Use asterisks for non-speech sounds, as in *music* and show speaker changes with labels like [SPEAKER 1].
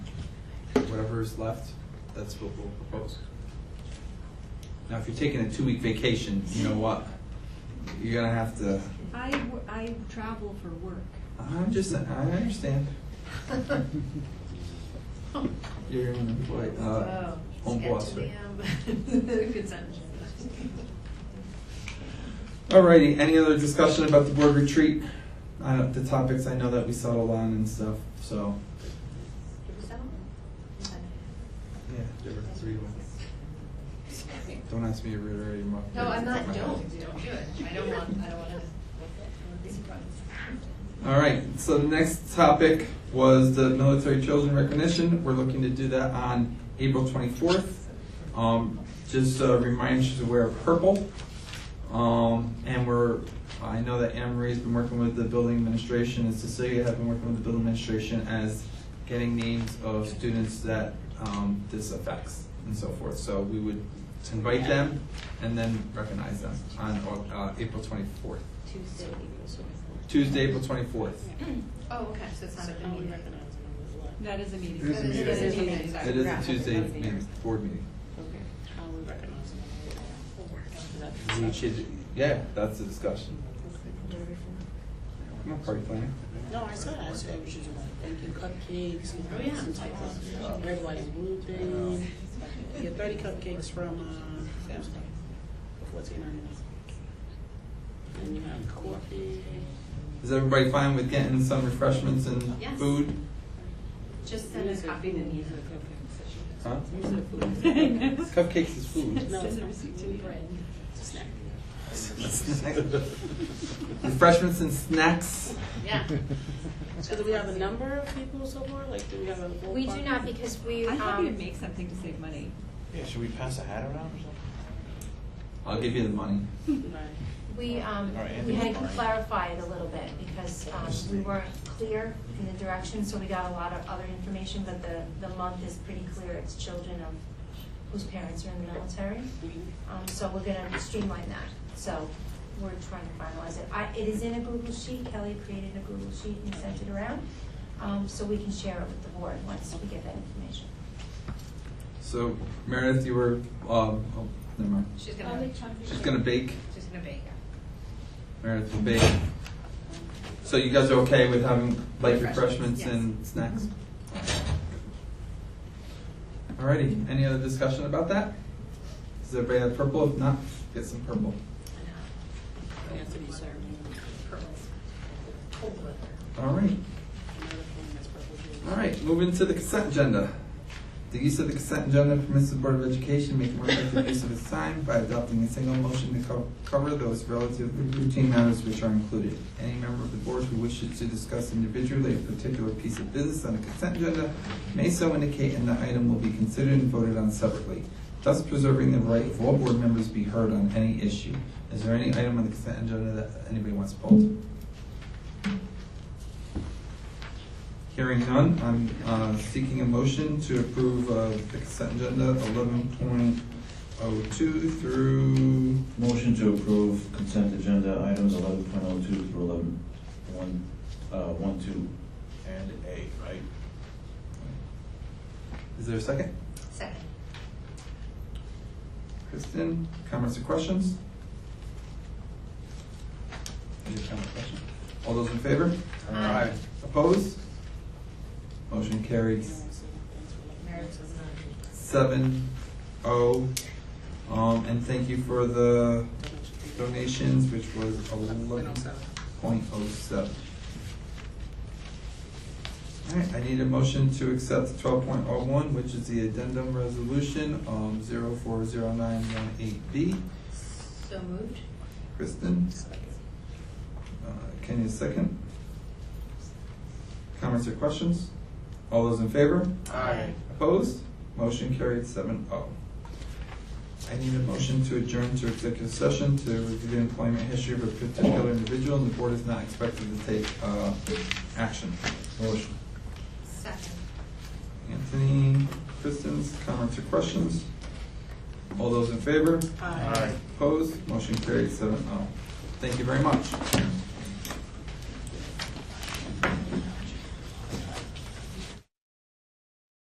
[SPEAKER 1] whatever's left, that's what we'll propose. Now, if you're taking a two-week vacation, you know what? You're gonna have to,
[SPEAKER 2] I, w- I travel for work.
[SPEAKER 1] I'm just, I understand.
[SPEAKER 3] *laughs*
[SPEAKER 1] You're an employee, uh,
[SPEAKER 4] Oh,
[SPEAKER 1] home boss, right?
[SPEAKER 4] um,
[SPEAKER 3] um, *laughs*
[SPEAKER 1] Alrighty, any other discussion about the board retreat? I don't, the topics I know that we settled on and stuff, so. Yeah, there were three ones. Don't ask me to reiterate your. mo-
[SPEAKER 4] No, I'm not,
[SPEAKER 1] my-
[SPEAKER 4] don't, don't do it. I don't want, I don't want to be surprised.
[SPEAKER 1] All right, so the next topic was the military children recognition. We're looking to do that on April 24th. Um, Just a reminder, she's aware of purple. Um, And we're, I know that Anne Marie's been working with the building administration, and Cecilia have been working with the building administration as getting names of students that um, this affects and so forth. So we would invite them and then recognize them on uh, April 24th,
[SPEAKER 5] Tuesday, April twenty-fourth.
[SPEAKER 1] Tuesday, April 24th.
[SPEAKER 4] Oh, okay, so it's not a big meeting.
[SPEAKER 2] That is a meeting.
[SPEAKER 6] It is a meeting.
[SPEAKER 4] It is a meeting, sorry.
[SPEAKER 1] It is a
[SPEAKER 5] Right.
[SPEAKER 1] Tuesday
[SPEAKER 5] That's the
[SPEAKER 1] meeting,
[SPEAKER 5] year.
[SPEAKER 1] board meeting.
[SPEAKER 5] Okay. How we recognize them.
[SPEAKER 1] We should, yeah, that's the discussion. I'm not party planning.
[SPEAKER 5] No, I saw that, so we should do like, thank you cupcakes. and
[SPEAKER 4] Oh, yeah.
[SPEAKER 5] some type of Red, white, and blue thing. Get thirty cupcakes from, uh, Sam's Club for fourteen ninety-nine. And you have coffee.
[SPEAKER 1] Is everybody fine with getting some refreshments and
[SPEAKER 4] Yes.
[SPEAKER 1] food?
[SPEAKER 4] Just send a copy to me.
[SPEAKER 1] Huh?
[SPEAKER 2] No,
[SPEAKER 1] Cupcakes is
[SPEAKER 4] *laughs*
[SPEAKER 1] food.
[SPEAKER 5] No, it's not.
[SPEAKER 2] receipt to me.
[SPEAKER 5] Bread. It's a snack.
[SPEAKER 1] Refreshments and snacks.
[SPEAKER 4] Yeah.
[SPEAKER 5] So do we have a number of people so far? Like, do we have a?
[SPEAKER 3] We do
[SPEAKER 5] ballpark?
[SPEAKER 3] not because we,
[SPEAKER 2] I'm happy to
[SPEAKER 3] um,
[SPEAKER 2] make something to
[SPEAKER 1] *laughs*
[SPEAKER 2] save money.
[SPEAKER 6] Yeah, should we pass a hat around or something?
[SPEAKER 1] *laughs* I'll give you the money.
[SPEAKER 5] Right.
[SPEAKER 3] we, um,
[SPEAKER 6] All right,
[SPEAKER 3] we had to
[SPEAKER 6] Anthony.
[SPEAKER 3] clarify it a little bit because, um, we weren't clear in the direction, so we got a lot of other information, but the, the month is pretty clear. It's children of whose parents are in the military. Um, so we're gonna streamline that. So we're trying to finalize it. I, it is in a Google sheet. Kelly created a Google sheet and sent it around. Um, so we can share it with the board once we get that information.
[SPEAKER 1] So Meredith, you were, um, oh, never mind.
[SPEAKER 4] She's gonna,
[SPEAKER 1] She's gonna bake.
[SPEAKER 4] she's gonna bake.
[SPEAKER 1] Meredith will bake. So you guys are okay with having light refreshments and snacks?
[SPEAKER 4] Mm-hmm.
[SPEAKER 1] Alrighty, any other discussion about that? Does everybody have purple? If not, get some purple.
[SPEAKER 5] It has to be served.
[SPEAKER 1] Alright, alright, moving to the consent agenda. The use of the consent agenda permits the Board of Education to make more effective use of its time by adopting a single motion to co- cover those relative routine matters which are included. Any member of the board who wishes to discuss individually a particular piece of business on the consent agenda may so indicate and the item will be considered and voted on separately, thus preserving the right of all board members to be heard on any issue. Is there any item on the consent agenda that anybody wants pulled? Hearing none, I'm uh, seeking a motion to approve uh, the consent agenda eleven point oh two through,
[SPEAKER 6] Motion to approve consent agenda items eleven point oh two through eleven, one, uh, one, two, and A, right?
[SPEAKER 1] is there a second?
[SPEAKER 4] Second.
[SPEAKER 1] Kristen, comments or questions? Any comment or question? All those in favor?
[SPEAKER 4] Aye.
[SPEAKER 1] Opposed? Motion carries seven oh. Um, And thank you for the donations, which was eleven point oh seven. All right, I need a motion to accept twelve point oh one, which is the addendum resolution, um, zero four zero nine one eight B.
[SPEAKER 4] So moved?
[SPEAKER 1] Kristen? Uh, Kenny, a second. Comments or questions? All those in favor?
[SPEAKER 4] Aye.
[SPEAKER 1] Opposed? Motion carried seven oh. I need a motion to adjourn to executive session to review employment history of a particular individual, and the board is not expected to take, uh, action.
[SPEAKER 6] Motion.
[SPEAKER 4] Second.
[SPEAKER 1] Anthony, Kristen's, comments or questions? All those in favor?
[SPEAKER 5] Aye. uh,
[SPEAKER 1] Opposed? Motion carried seven oh. Thank you very much.